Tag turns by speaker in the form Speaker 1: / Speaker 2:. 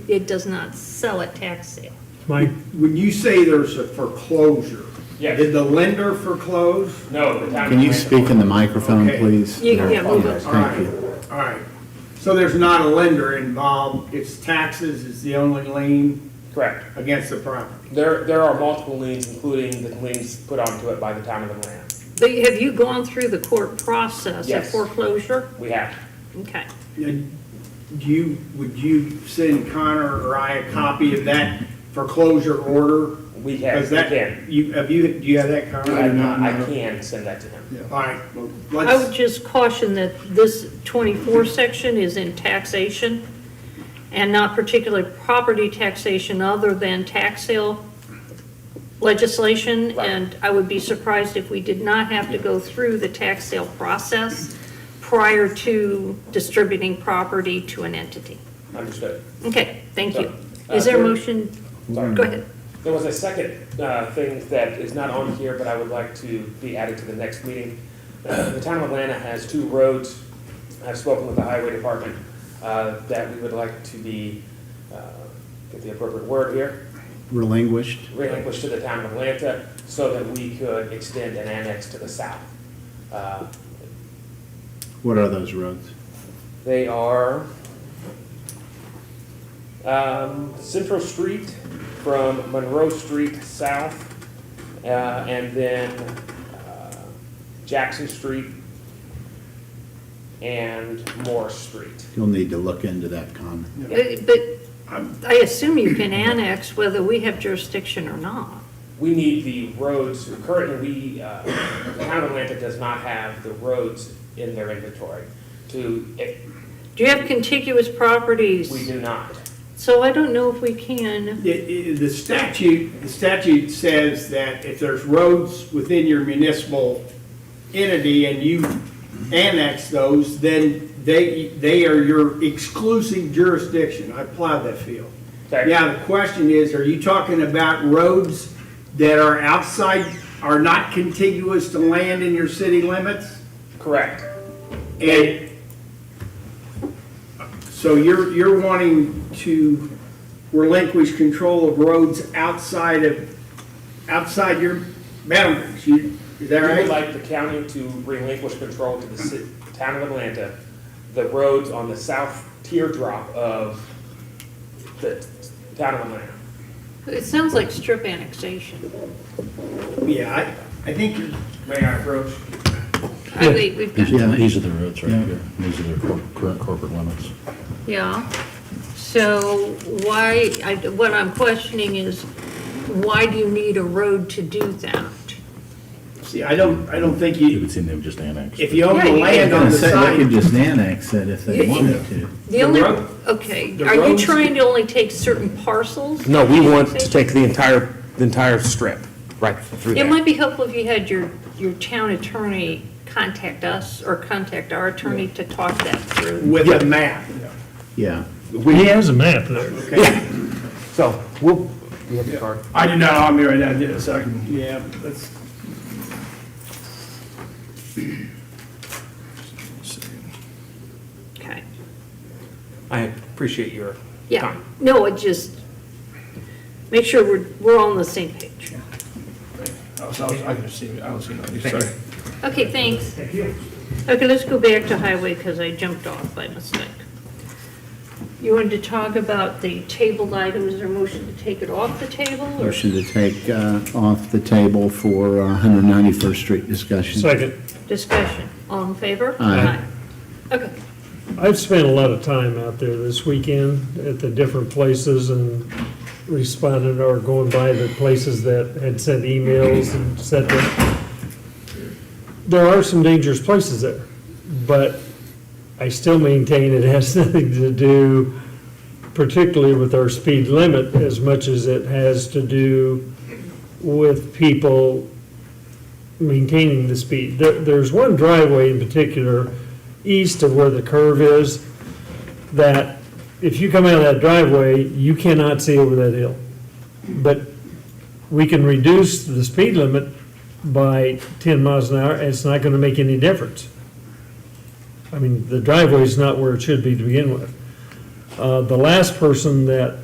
Speaker 1: it does not sell at tax sale.
Speaker 2: Mike,
Speaker 3: When you say there's a foreclosure,
Speaker 4: Yes.
Speaker 3: did the lender foreclose?
Speaker 4: No, the town.
Speaker 5: Can you speak in the microphone,
Speaker 3: Okay.
Speaker 5: please?
Speaker 1: You- yeah, we'll go.
Speaker 3: All
Speaker 5: Thank
Speaker 3: right,
Speaker 5: you.
Speaker 3: all right. So there's not a lender involved, it's taxes is the only lien
Speaker 4: Correct.
Speaker 3: against the property.
Speaker 4: There, there are multiple liens, including the liens put onto it by the town of Atlanta.
Speaker 1: But have you gone through the court process of
Speaker 4: Yes.
Speaker 1: foreclosure?
Speaker 4: We have.
Speaker 1: Okay.
Speaker 3: And Do you, would you send Connor or I a copy of that foreclosure order?
Speaker 4: We have, we
Speaker 3: Because that
Speaker 4: can.
Speaker 3: You, have you, do you have that, Connor?
Speaker 4: I, I can send that to him.
Speaker 3: All right, well,
Speaker 1: I would
Speaker 3: let's,
Speaker 1: just caution that this 24 section is in taxation and not particularly property taxation other than tax sale legislation.
Speaker 4: Right.
Speaker 1: And I would be surprised if we did not have to go through the tax sale process prior to distributing property to an entity.
Speaker 4: Understood.
Speaker 1: Okay, thank you.
Speaker 4: So, uh,
Speaker 1: Is there a
Speaker 4: there-
Speaker 1: motion?
Speaker 5: Mm-hmm.
Speaker 4: Sorry.
Speaker 1: Go ahead.
Speaker 4: There was a second uh, thing that is not on here, but I would like to be added to the next meeting. Uh, The town of Atlanta has two roads, I've spoken with the highway department, uh, that we would like to be, uh, get the appropriate word here,
Speaker 5: Relinquished.
Speaker 4: relinquished to the town of Atlanta so that we could extend an annex to the south. Uh,
Speaker 5: What are those roads?
Speaker 4: They are um, Central Street from Monroe Street south, uh, and then uh, Jackson Street and Morris Street.
Speaker 5: You'll need to look into that comment.
Speaker 1: Uh, But but I assume you can annex whether we have jurisdiction or not.
Speaker 4: We need the roads, currently, we, uh, the town of Atlanta does not have the roads in their inventory to, if
Speaker 1: Do you have contiguous
Speaker 4: we
Speaker 1: properties?
Speaker 4: do not.
Speaker 1: So I don't know if we can,
Speaker 3: i- i- the statute, the statute says that if there's roads within your municipal entity and you annex those, then they, they are your exclusive jurisdiction. I plowed that field.
Speaker 4: Okay.
Speaker 3: Now, the question is, are you talking about roads that are outside, are not contiguous to land in your city limits?
Speaker 4: Correct.
Speaker 3: And so you're, you're wanting to relinquish control of roads outside of, outside your boundaries, you, is that
Speaker 4: We would
Speaker 3: right?
Speaker 4: like the county to relinquish control to the ci- town of Atlanta, the roads on the south teardrop of the town of Atlanta.
Speaker 1: it sounds like strip annexation.
Speaker 3: Yeah, I, I think, you're-
Speaker 4: May I approach?
Speaker 1: I think we've got,
Speaker 5: Yeah.
Speaker 6: These are the roads right
Speaker 5: Yeah.
Speaker 6: here. These are their cor- current corporate limits.
Speaker 1: yeah. So why, I- what I'm questioning is, why do you need a road to do that?
Speaker 3: see, I don't, I don't think
Speaker 6: You
Speaker 3: you,
Speaker 6: would see them just annexed.
Speaker 3: if you own
Speaker 1: Yeah,
Speaker 3: the
Speaker 1: you
Speaker 3: land on the
Speaker 5: They
Speaker 3: side,
Speaker 5: could just annex it if they
Speaker 1: Yeah.
Speaker 5: wanted to.
Speaker 1: The only,
Speaker 3: road-
Speaker 1: okay,
Speaker 3: the
Speaker 1: are you
Speaker 3: roads-
Speaker 1: trying to only take certain parcels?
Speaker 4: No, we want to take the entire, the entire strip, right through
Speaker 1: It
Speaker 4: there.
Speaker 1: might be helpful if you had your, your town attorney contact us or contact our attorney to talk that through.
Speaker 3: with a map.
Speaker 5: Yeah.
Speaker 2: he has a map there.
Speaker 4: So, we'll, you have the card?
Speaker 7: I did not, I'm here right now, I did it, so I can,
Speaker 3: Yeah, that's.
Speaker 1: Okay.
Speaker 4: I appreciate your
Speaker 1: Yeah, no, it just, make sure we're, we're all on the same page.
Speaker 7: I was, I was- I can see, I don't see nothing, sorry.
Speaker 1: Okay, thanks. Okay, let's go back to highway because I jumped off by mistake. You wanted to talk about the tabled items, or motion to take it off the table? or-
Speaker 5: Motion to take uh, off the table for uh, 191st Street discussion.
Speaker 2: Second,
Speaker 1: Discussion, all in favor?
Speaker 5: Aye.
Speaker 1: Aye. Okay,
Speaker 2: I've spent a lot of time out there this weekend at the different places and responded or going by the places that had sent emails and said that there are some dangerous places there, but I still maintain it has nothing to do particularly with our speed limit as much as it has to do with people maintaining the speed. There, there's one driveway in particular, east of where the curve is, that if you come out of that driveway, you cannot see over that hill. But we can reduce the speed limit by ten miles an hour, and it's not gonna make any difference. I mean, the driveway's not where it should be to begin with. Uh, The last person that